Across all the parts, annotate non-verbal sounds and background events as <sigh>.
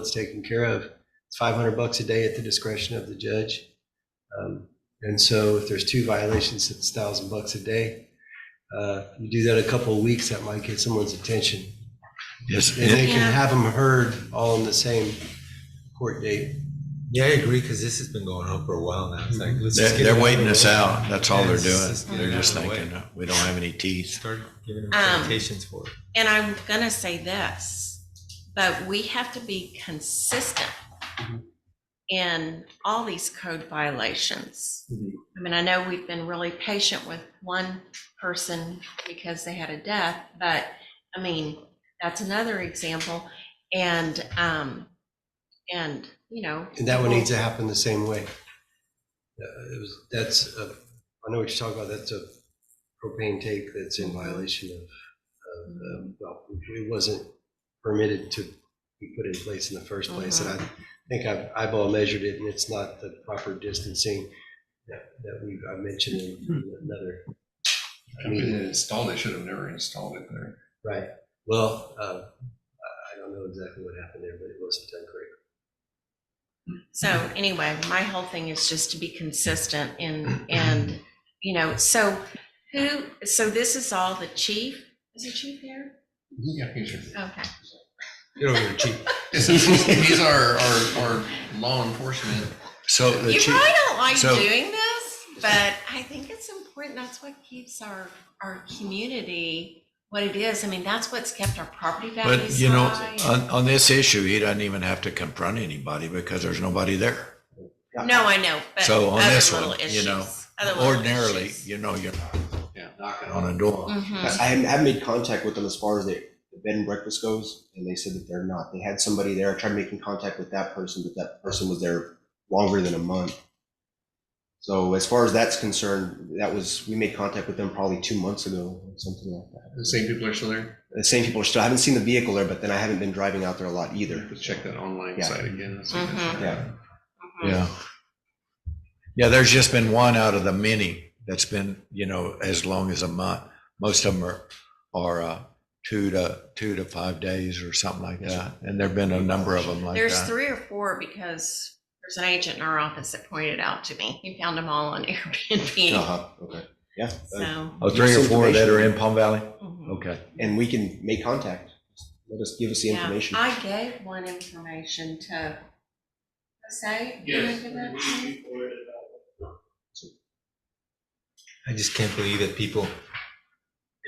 it's taken care of. It's 500 bucks a day at the discretion of the judge. Um, And so if there's two violations, it's 1,000 bucks a day. Uh, You do that a couple of weeks, that might get someone's attention. Yes, And they can Yeah. have them heard all on the same court date. Yeah, I agree, because this has been going on for a while now. It's like, let's Mm-hmm. just they're, get they're it waiting over us with. out. That's all they're Yes, just doing. get They're it just out of the way. thinking, we don't have any teeth. Start giving them Um, citations for it. And I'm going to say this, but we have to be consistent Mhm. in all these code violations. Mhm. I mean, I know we've been really patient with one person because they had a death, but I mean, that's another example. And, um, and, you know. And that one needs to happen the same way. Uh, it was- That's, a- I know what you're talking about, that's a propane tank that's in violation of, of, uh, well, it wasn't permitted to be put in place in the first place. And I think I've eyeball measured it and it's not the proper distancing that that we, I mentioned in another. I mean, installed, they should have never installed it there. right, well, uh, I I don't know exactly what happened there, but it wasn't done correctly. So anyway, my whole thing is just to be consistent and, and, you know, so who, so this is all the chief? Is the chief here? Yeah, he's, Okay. You don't even cheat. he's our, our, our law enforcement. So the You chief, probably don't like so- doing this, but I think it's important. That's what keeps our, our community what it is. I mean, that's what's kept our property but values you know, uh, high. on, on this issue, he doesn't even have to confront anybody because there's nobody there. No, I know, but So on other this little one, you know, issues, other little Ordinarily, issues. you know, you're Yeah. knocking on a door. Mhm. I haven't, I haven't made contact with them as far as the, the bed and breakfast goes, and they said that they're not. They had somebody there. I tried making contact with that person, but that person was there longer than a month. So as far as that's concerned, that was we made contact with them probably two months ago, something like that. The same people are still there? The same people are still. I haven't seen the vehicle there, but then I haven't been driving out there a lot either. Let's check that online Yeah. site again. see if it's- Mhm. Yeah. Yeah. Yeah, there's just been one out of the many that's been, you know, as long as a month. Most of them are, are, uh, two to, two to five days or something like that. And there've been a number of them like that. There's three or four because there's an agent in our office that pointed out to me. He found them all on <laughs> <laughs> Uh Uh-huh. Airbnb. huh. Okay. Yeah. So. Oh, three or four that are in Misinformation. Palm Valley? mhm. Okay. And we can make contact. Let us give us the Yeah, information. I gave one information to Jose. you wanna give that to me? I just can't believe that people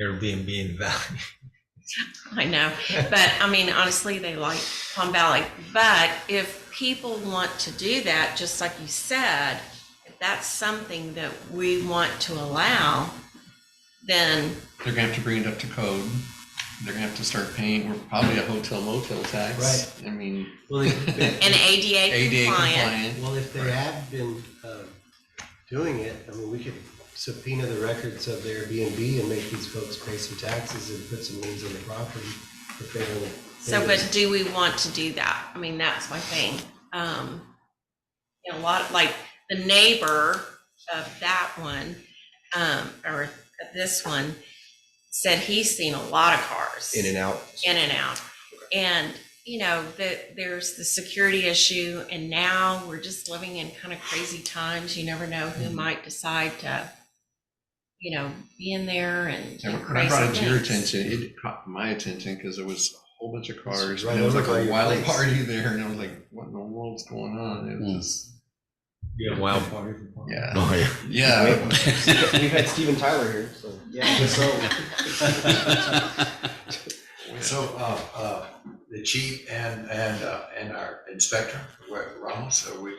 Airbnb in Valley. <laughs> I know, but I mean, honestly, they like Palm Valley. But if people want to do that, just like you said, if that's something that we want to allow, then They're gonna have to bring it up to code. They're gonna have to start paying, we're probably a hotel motel tax. Right. I mean, Well, they- <laughs> and ADA ADA compliant. compliant. Well, if they have been um, doing it, I mean, we could subpoena the records of their Airbnb and make these folks pay some taxes and put some liens on the property if they want to. So, but do we want to do that? I mean, that's my thing. Um, you know, a lot, like the neighbor of that one, um, or this one said he's seen a lot of cars in and out. in and out. And, you know, that there's the security issue and now we're just living in kind of crazy times. You never know Mm-hmm. who might decide to, you know, be in there and do And when crazy I brought it to your things. attention, it caught my attention because there was a whole bunch of cars. right and It was over like by a your wild place. party there and I was like, what in the world's going on? It was just, You have wild party. yeah. Oh, yeah. Yeah. <laughs> We've had Steven Tyler here, so yeah. So. <laughs> So, uh, uh, the chief and, and, uh, and our inspector, where- Ramos, are we, are-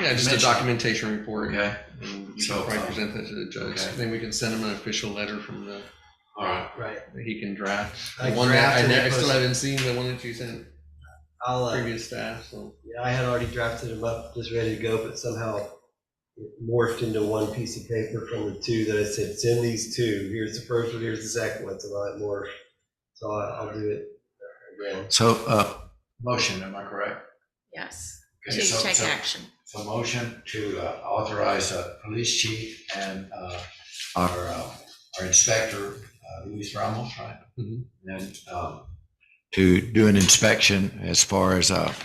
Yeah, just a Mention. documentation report. okay, And you So, can probably um, present that to the judge. okay. Then we can send him an official letter from the, all right. Right, that he can draft. The Like one that draft I and ne- then I still post- haven't seen, the one that you sent I'll, uh, previous staff, so. yeah, I had already drafted them up, just ready to go, but somehow it morphed into one piece of paper from the two that I said, send these two. Here's the first one, here's the second one, so I'll morph. So I- I'll do it again. So, uh, Motion, am I correct? Yes. Okay, To so- take so- action. So motion to uh, authorize uh police chief and, uh, our, uh, our inspector, uh, Luis Ramos, right? Mm-hmm. Mhm. And, um, to do an inspection as far as, uh,